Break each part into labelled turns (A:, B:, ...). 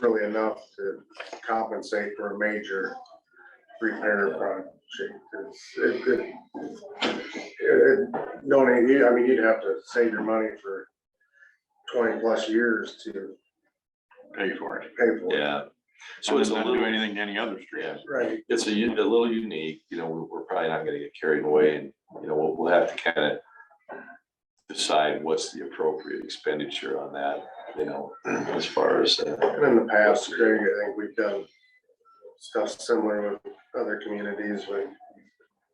A: really enough to compensate for a major repair project. It's- it- it- it- No, need- I mean, you'd have to save your money for twenty plus years to
B: pay for it.
A: pay for it.
C: Yeah, so
B: So
C: it's
B: it's
C: a
B: not do
C: little,
B: anything to any other street.
C: yeah,
A: Right,
C: it's a, u- a little unique, you know, we're, we're probably not gonna get carried away and, you know, we'll, we'll have to kind of decide what's the appropriate expenditure on that, you know, as far as, uh,
A: and in the past, Greg, I think we've done stuff similar with other communities, but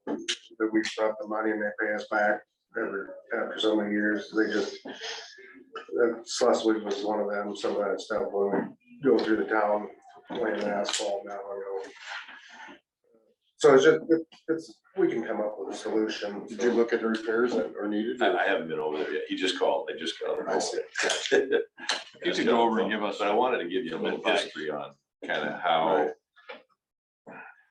A: that we stop the money and they pay us back every, after so many years, they just that Schleswig was one of them, some of that stuff when we go through the town, laying asphalt now, you know. So it's just, it- it's, we can come up with a solution.
D: Did you look at the repairs that are needed?
C: I, I haven't been over there yet, he just called, I just got.
D: I see.
B: You could go over and give us
C: But I wanted to give you a little
B: Little back.
C: history on kind of how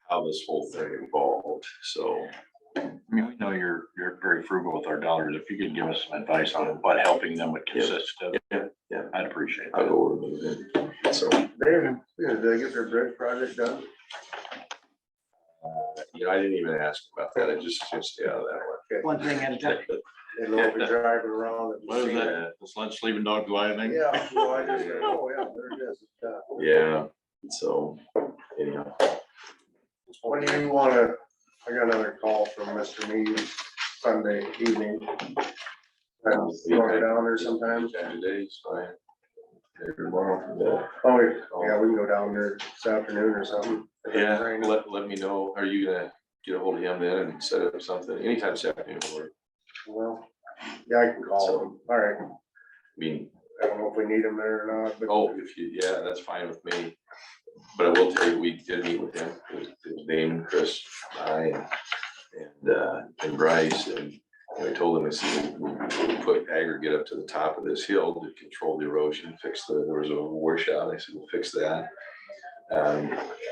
C: how this whole thing evolved, so.
B: I mean, we know you're, you're very frugal with our dollars. If you could give us some advice on what helping them would consist of,
C: Yeah, yeah.
B: I'd appreciate
C: I'll
B: that.
C: go over and move in, so.
A: They, you know, did they get their bridge project done?
C: Uh, You know, I didn't even ask about that, I just, just, yeah, that
E: one thing at a time.
A: They know if you're driving around. and-
B: What is that? The sled sleeping dog gliding?
A: Yeah, well, I just, oh, yeah, there it is. it's done.
C: one, yeah, so, anyhow,
A: What do you wanna, I got another call from Mr. Mead Sunday evening. I'm
B: Oh,
A: going down there sometime.
C: today's fine. Maybe tomorrow,
A: Oh, yeah, we can go down there this afternoon or something.
C: yeah. yeah, let, let me know, are you gonna get a hold of him then and set up something, anytime this afternoon, or,
A: Well, yeah, I can call them. All right.
C: I mean,
A: I don't know if we need them there or not, but.
C: Oh, if you, yeah, that's fine with me. But I will tell you, we did meet with him, it was it was Damon, Chris, I, and- and, uh, and Bryce, and I told him, I said, we we put aggregate up to the top of this hill to control the erosion, fix the, there was a washout, I said, we'll fix that. Um,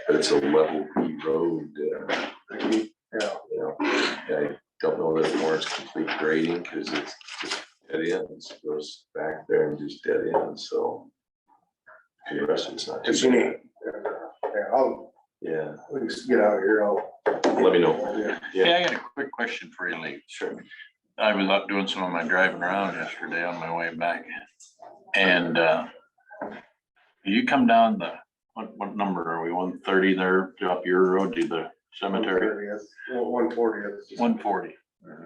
C: but it's a level B road, uh,
A: Yeah,
C: you know, I don't know that it warrants complete grading, cause it's just dead ends, goes back there and just dead ends, so. for The rest of it's not. too
A: it's unique.
C: bad.
A: Yeah, I'll,
C: Yeah,
A: we can just get out of here. I'll.
C: let me know.
A: Yeah.
B: Hey, I got a quick question for you, Lee.
C: Sure.
B: I was up doing some of my driving around yesterday on my way back. And uh, you come down the, what, what number are we, one thirty there, up your road to the cemetery?
A: 1:30th, One fortieth.
B: One forty,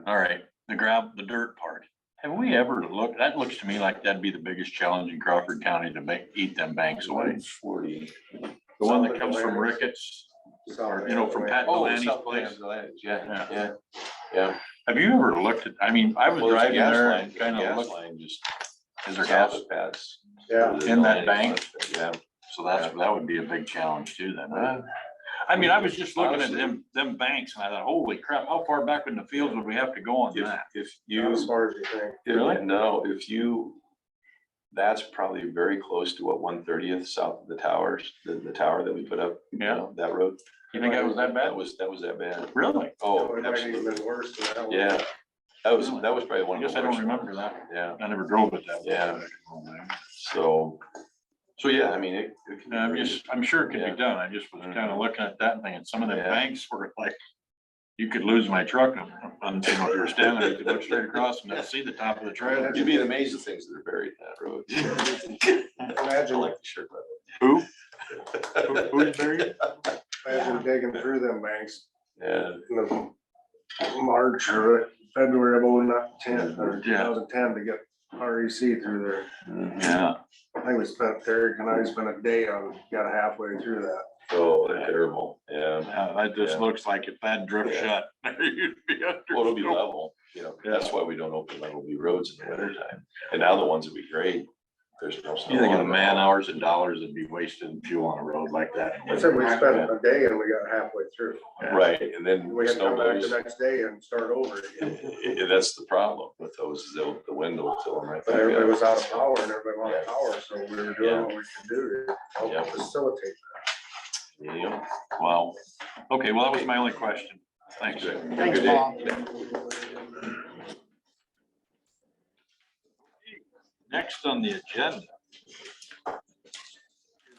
B: all right, the grab, the dirt part. Have we ever looked, that looks to me like that'd be the biggest challenge in Crawford County to make, eat them banks away.
C: Forty.
B: The one that comes from Ricketts, or, you know, from Pat
C: Oh,
B: Delaney's
C: South
B: place.
C: Plains, Atlantis, yeah,
B: Yeah.
C: yeah, yeah.
B: Have you ever looked at, I mean, I was
C: Well, there's a
B: driving
C: gas
B: there
C: line-
B: and
C: there's a
B: kind of
C: gas
B: looked,
C: line just
B: is there
C: south
B: gas?
C: of Pat's.
A: Yeah.
B: In that bank?
C: Yeah.
B: So that's, that would be a big challenge too then. huh? I mean, I was just looking at
C: Honestly.
B: them, them banks and I thought, holy crap, how far back in the fields would we have to go on
C: If,
B: that?
C: if
A: Not
C: you
A: As far as you think.
B: Really?
C: If- No, if you, that's probably very close to what one thirtieth south of the towers, the, the tower that we put up. you
B: Yeah.
C: know, That road.
B: You think that was that bad?
C: That was, that was that bad.
B: Really?
C: Oh,
A: It might even
C: absolutely.
A: been worse than that one.
C: Yeah. That was, that was probably
B: I
C: one of
B: guess
C: the
B: I don't
C: worst.
B: remember that.
C: Yeah,
B: I never drove it that way.
C: Yeah. so, so yeah, I mean, it. it can be
B: And I'm
C: very-
B: just, I'm sure it could
C: Yeah.
B: be done. I just was kind of looking at that thing and some of the
C: Yeah.
B: banks were like, you could lose my truck and, and, you know, if you were standing, there, you could look straight across and not see the top of the trailer.
C: You'd be amazed at things that are buried in that road. I
A: Imagine,
C: like the shirt. but-
B: Who? Who- Who's buried?
A: imagine digging through them banks
C: Yeah,
A: in the March or February of 2010 or two
B: Yeah.
A: thousand ten to get REC through there.
B: Yeah.
A: I think we spent, Eric and I spent a day on, got halfway through that.
C: oh, they're terrible, yeah.
B: Yeah, Uh, that
C: Yeah.
B: just looks like if that drip
C: Yeah.
B: shut. you'd be under-
C: Well, it'll be level, you know, that's why we don't open level B roads in the winter time. And now the ones that we grade, there's no. snow
B: You
C: on
B: think of the
C: them.
B: man hours and dollars that'd be wasted in fuel on a road like that.
A: I said we spent a day and we got halfway through.
C: Right, and then
A: We had to
C: snow
A: come back
C: blows.
A: the next day and start over
C: I-
A: again.
C: I- That's the problem with those, is they'll- the wind will fill them right
A: But everybody
C: back
A: was
C: up.
A: out of power and everybody wanted power, so we were doing what we could do to
C: Yeah.
A: help facilitate.
C: Yeah.
B: Wow. Okay, well, that was my only question. Thanks.
E: Thanks,
C: Good day.
E: Paul.
B: Next on the agenda